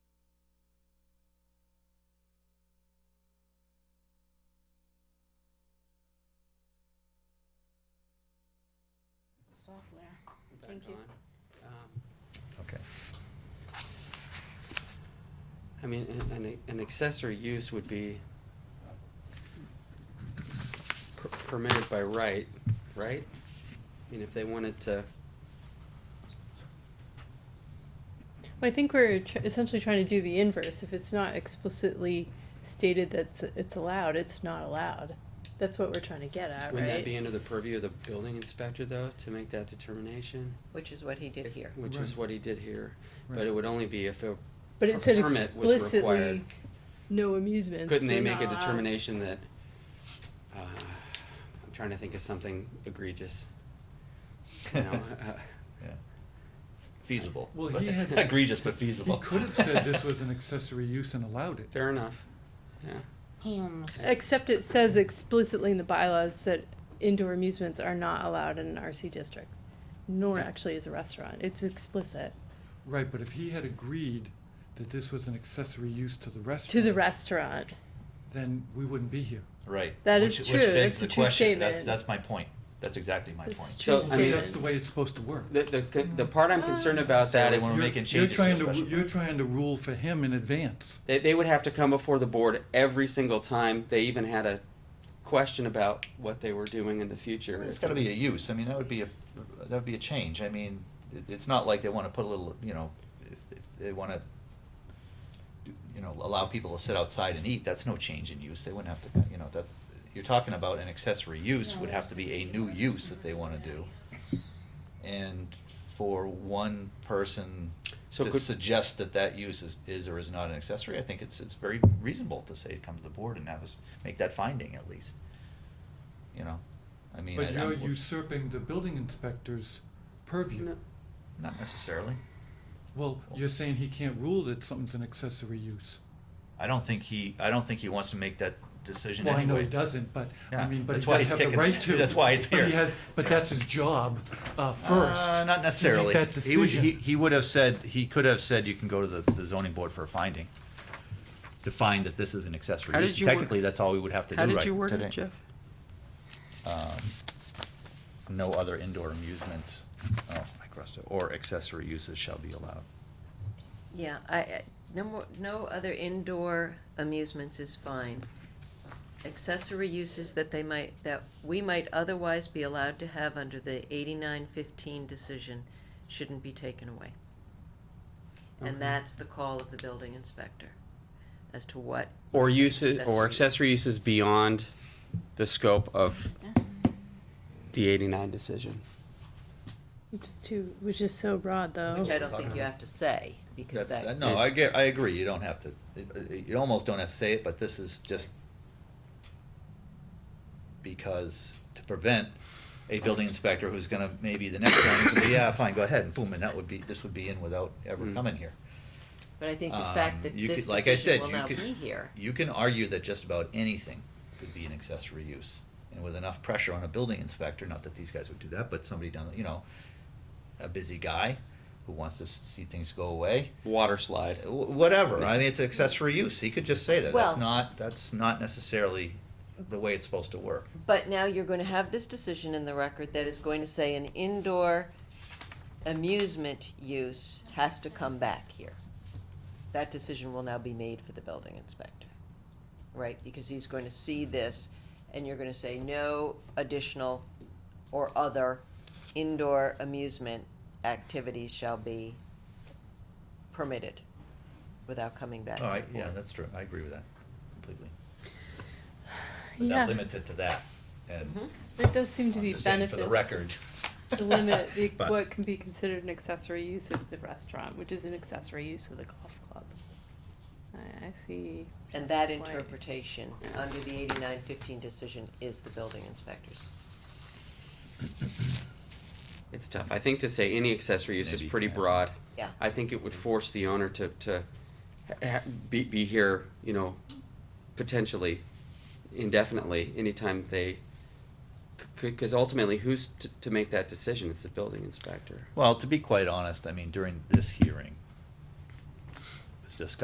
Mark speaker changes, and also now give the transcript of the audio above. Speaker 1: software.
Speaker 2: back
Speaker 1: Thank you.
Speaker 2: on. Um,
Speaker 3: Okay.
Speaker 2: I mean, an- an, an accessory use would be per- permitted by right, right? I mean, if they wanted to,
Speaker 4: Well, I think we're tr- essentially trying to do the inverse. If it's not explicitly stated that it's, it's allowed, it's not allowed. That's what we're trying to get at,
Speaker 2: wouldn't that be
Speaker 4: right?
Speaker 2: under the purview of the building inspector though, to make that determination?
Speaker 5: Which is what he did
Speaker 2: If-
Speaker 5: here.
Speaker 2: Which is
Speaker 3: Right.
Speaker 2: what he did here, but
Speaker 3: Right.
Speaker 2: it would only be if it,
Speaker 4: But
Speaker 2: a
Speaker 4: it said
Speaker 2: permit was required.
Speaker 4: explicitly, no amusements.
Speaker 2: couldn't they
Speaker 4: they're
Speaker 2: make a
Speaker 4: not allowed.
Speaker 2: determination that, uh, I'm trying to think of something egregious. You know, uh,
Speaker 3: Yeah. Feasible.
Speaker 6: Well, he had-
Speaker 3: Egregious, but feasible.
Speaker 6: He could have said this was an accessory use and allowed it.
Speaker 2: Fair enough, yeah.
Speaker 1: Ham.
Speaker 4: Except it says explicitly in the bylaws that indoor amusements are not allowed in an RC district, nor actually is a restaurant. It's explicit
Speaker 6: Right, but if he had agreed that this was an accessory use to the restaurant.
Speaker 4: to the restaurant.
Speaker 6: Then we wouldn't be here.
Speaker 3: Right.
Speaker 4: That
Speaker 3: Which-
Speaker 4: is
Speaker 3: which
Speaker 4: true.
Speaker 3: begs
Speaker 4: It's
Speaker 3: the
Speaker 4: a true
Speaker 3: question. That's,
Speaker 4: statement.
Speaker 3: that's my point. That's exactly my
Speaker 4: It's
Speaker 3: point.
Speaker 4: true
Speaker 2: So, I
Speaker 6: So
Speaker 2: mean-
Speaker 6: that's the
Speaker 4: statement.
Speaker 6: way it's supposed to work.
Speaker 2: The, the, con- the part I'm concerned about
Speaker 3: So
Speaker 2: that
Speaker 3: we
Speaker 2: is
Speaker 3: wanna
Speaker 6: You're-
Speaker 3: make making changes to a
Speaker 6: You're trying
Speaker 3: special
Speaker 6: to, you're
Speaker 3: permit.
Speaker 6: trying to rule for him in advance.
Speaker 2: they, they would have to come before the board every single time they even had a question about what they were doing in the future.
Speaker 3: It's gotta be a use, I mean, that would be a, that would be a change, I mean, it, it's not like they wanna put a little, you know, if- if they wanna, do- you know, allow people to sit outside and eat, that's no change in use, they wouldn't have to, you know, that, you're talking about an accessory use would have to be a new use that they wanna do. And for one person
Speaker 2: So
Speaker 3: to
Speaker 2: could-
Speaker 3: suggest that that use is, is or is not an accessory, I think it's, it's very reasonable to say, come to the board and have us make that finding at least. You know, I mean. I-
Speaker 6: But you're
Speaker 3: I'm-
Speaker 6: usurping the building inspector's purview.
Speaker 2: No.
Speaker 3: Not necessarily.
Speaker 6: Well, you're saying he can't rule that something's an accessory use.
Speaker 3: I don't think he, I don't think he wants to make that decision
Speaker 6: Well, I know
Speaker 3: anyway.
Speaker 6: he doesn't, but, I
Speaker 3: Yeah,
Speaker 6: mean, but
Speaker 3: that's
Speaker 6: he
Speaker 3: why
Speaker 6: does
Speaker 3: he's
Speaker 6: have the
Speaker 3: kicking
Speaker 6: right
Speaker 3: us-
Speaker 6: to.
Speaker 3: that's why it's
Speaker 6: But he
Speaker 3: here.
Speaker 6: has- But that's his job, uh, first.
Speaker 3: Uh,
Speaker 6: to
Speaker 3: Not
Speaker 6: make
Speaker 3: necessarily.
Speaker 6: that
Speaker 3: He was, he,
Speaker 6: decision.
Speaker 3: he would have said, he could have said you can go to the, the zoning board for a finding. To find that this is an accessory
Speaker 2: How
Speaker 3: use.
Speaker 2: did you wor-
Speaker 3: Technically, that's all we would have to do
Speaker 2: How
Speaker 3: right today.
Speaker 2: did you word it, Jeff?
Speaker 3: Um, No other indoor amusement, oh, I crossed it, or accessory uses shall be allowed.
Speaker 5: Yeah, I, I- no more, no other indoor amusements is fine. Accessory uses that they might, that we might otherwise be allowed to have under the eighty-nine fifteen decision shouldn't be taken away.
Speaker 2: Okay.
Speaker 5: And that's the call of the building inspector as to what,
Speaker 2: Or uses, or
Speaker 5: Accessory.
Speaker 2: accessory uses beyond the scope of the eighty-nine decision.
Speaker 4: Which is too, which is so broad, though.
Speaker 5: which I don't think you have to say, because
Speaker 3: Oh. That's-
Speaker 5: that.
Speaker 3: No, I get, I agree, you don't have to, it- you almost don't have to say it, but this is just because to prevent a building inspector who's gonna, maybe the next one, could be, yeah, fine, go ahead, and boom, and that would be, this would be in without ever
Speaker 5: Hmm.
Speaker 2: Mm.
Speaker 3: coming here.
Speaker 5: But I think the
Speaker 3: Um,
Speaker 5: fact that
Speaker 3: you
Speaker 5: this
Speaker 3: could- like I said,
Speaker 5: decision will
Speaker 3: you
Speaker 5: now be
Speaker 3: could-
Speaker 5: here.
Speaker 3: You can argue that just about anything could be an accessory use, and with enough pressure on a building inspector, not that these guys would do that, but somebody down, you know, a busy guy who wants to s- see things go away,
Speaker 2: Water slide.
Speaker 3: Wh- whatever. I mean, it's accessory use. He could just say that. that's
Speaker 5: Well-
Speaker 3: not. That's not necessarily the way it's supposed to work.
Speaker 5: But now you're going to have this decision in the record that is going to say an indoor amusement use has to come back here. That decision will now be made for the building inspector, right? Because he's going to see this and you're going to say no additional or other indoor amusement activities shall be permitted without coming back. to
Speaker 3: All right.
Speaker 5: the
Speaker 3: Yeah,
Speaker 5: board.
Speaker 3: that's true. I agree with that completely. But
Speaker 4: Yeah.
Speaker 3: not limited to that. And
Speaker 5: Mhm.
Speaker 4: There does seem to
Speaker 3: I'm
Speaker 4: be
Speaker 3: just saying
Speaker 4: benefits.
Speaker 3: for the record.
Speaker 4: To limit the,
Speaker 3: But-
Speaker 4: what can be considered an accessory use of the restaurant, which is an accessory use of the golf club. I, I see.
Speaker 5: And that
Speaker 4: why-
Speaker 5: interpretation under the eighty-nine fifteen decision is the building inspector's.
Speaker 2: It's tough. I think to say any accessory use is
Speaker 3: Maybe,
Speaker 2: pretty
Speaker 3: yeah.
Speaker 2: broad.
Speaker 5: Yeah.
Speaker 2: I think it would force the owner to, to ha- ha- be, be here, you know, potentially indefinitely, anytime they, could, cause ultimately who's to, to make that decision? It's the building inspector.
Speaker 3: Well, to be quite honest, I mean, during this hearing, it was discussed